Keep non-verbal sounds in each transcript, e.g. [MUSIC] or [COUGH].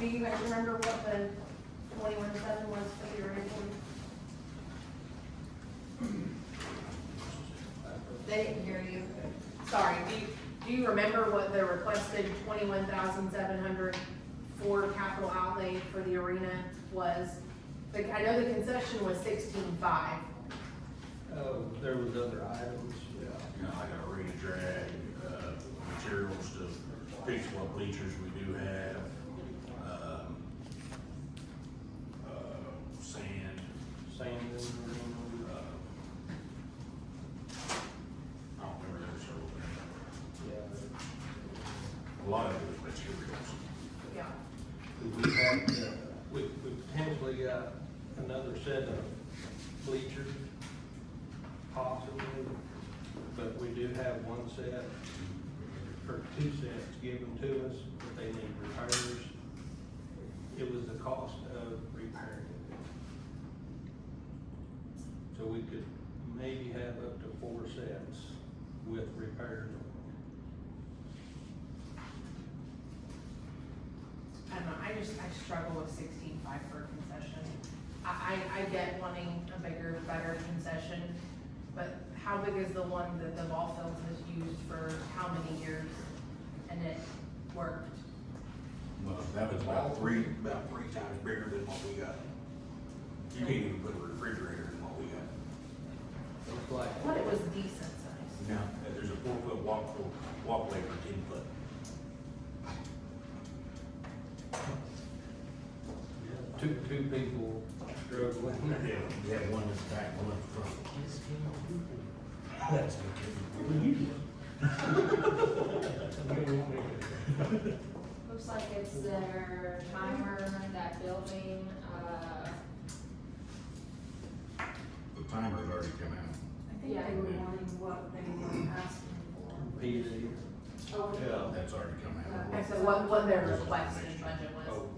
Do you guys remember what the twenty-one seven was for the original? They didn't hear you. Sorry, do you, do you remember what the requested twenty-one thousand seven hundred for capital outlay for the arena was? Like, I know the concession was sixteen-five. Oh, there was other items, you know, like our arena drag, uh, materials to fix what bleachers we do have, um, uh, sand, sand uh, and, I don't remember there was several things. yeah. A lot of it was materials. Yeah. We have, uh, we, we potentially got another set of bleachers, possibly, but we do have one set, or two sets given to us, but they need repairs. It was the cost of repairing it. So we could maybe have up to four sets with repairs on it. I don't know, I just, I struggle with sixteen-five for a concession. I, I, I get wanting a bigger, better concession, but how big is the one that the ball fields has used for how many years? And it worked. Well, that was about three, about three times bigger than what we got. You can't even put a refrigerator in what we got. Looks like. But it was decent size. Now, there's a four foot walk, walkway for ten foot. Two, two people struggling. [LAUGHS] Yeah, we have one in the back, one in front. That's okay. Looks like it's their timer, that building, uh, The timer's already come out. I think they were wanting what they were asking for. PD. Yeah. That's already come out. Okay, so what, what their requested budget was. Oh,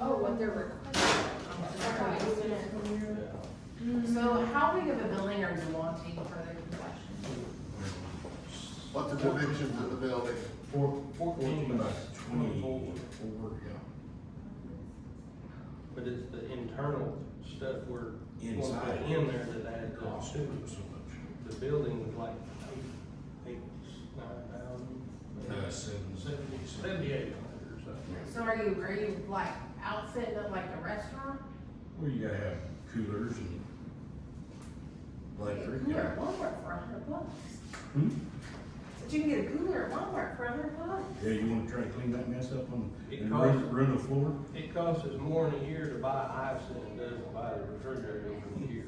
oh, what they're requesting. Okay. yeah. Mm-hmm. So how big of a building are you wanting for the concession? What the dimensions of the building? Four, Fourteen by Twenty-four. twenty-four, yeah. but it's the internal stuff we're going to Inside. put in there that adds up Cost to so it. much. The building was like eight, eight, nine thousand. Uh, seven, Seventy, seventy-eight hundred or something. Yeah. So are you, are you like outfitting it like a restaurant? Well, you gotta have coolers and electric. Cooler at Walmart for a hundred bucks. Hmm? But you can get a cooler at Walmart for a hundred bucks. Yeah, you wanna try to clean that mess up on, It and costs- run, run the floor? It costs us more in a year to buy ice than it does to buy the refrigerator in a year.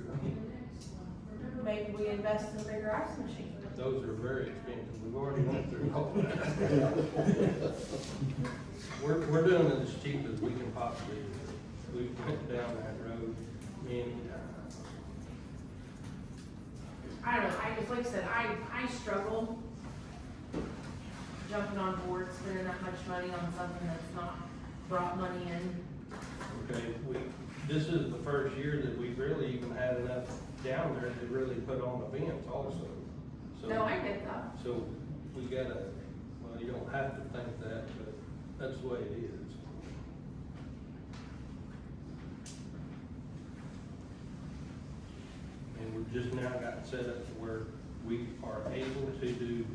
Maybe we invest in a bigger ice machine. Those are very expensive, we've already went through all that. We're, we're doing it as cheap as we can possibly do. We've went down that road many times. I don't know, I just, like I said, I, I struggle jumping on board, spending that much money on something that's not brought money in. uh, Okay, we, this is the first year that we've really even had enough down there to really put on events also. So- No, I get that. So we gotta, well, you don't have to think that, but that's the way it is. And we've just now gotten set up to where we are able to do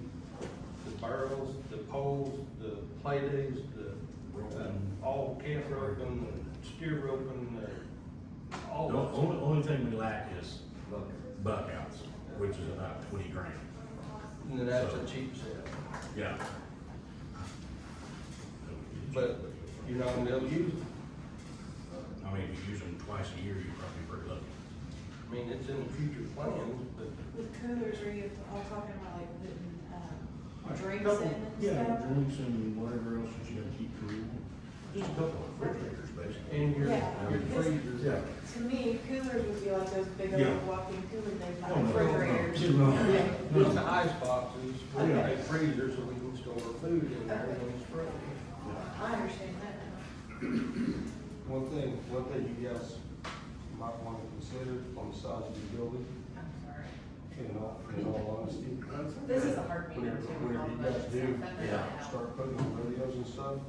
the barrels, the poles, the play days, the, uh, all camp roping, the steer roping, the, all. The only, only thing we lack is buck outs, which is about twenty grand. And then that's a cheap sale. Yeah. But you're not gonna be able to use it. I mean, if you use them twice a year, you're probably pretty lucky. I mean, it's in the future plans, but With coolers, are you all talking about like putting, um, drinks in and Yeah, stuff? drinks and whatever else that you gotta keep cool. Just a couple of refrigerators, basically. in your, Yeah. your freezer. Yeah. To me, coolers would be like those big Yeah. old walking coolers, they Oh, like no, no, no. refrigerators. No. It's the ice boxes, we Yeah. have a freezer so we can store our food in there when it's frozen. I understand that now. One thing, one thing you guys might want to consider on the size of your building, I'm sorry. in all, in all honesty. This is a hard meeting Whenever, too. with all whenever the you guys budget do, stuff. That's Yeah. not helpful. start putting on radios and stuff,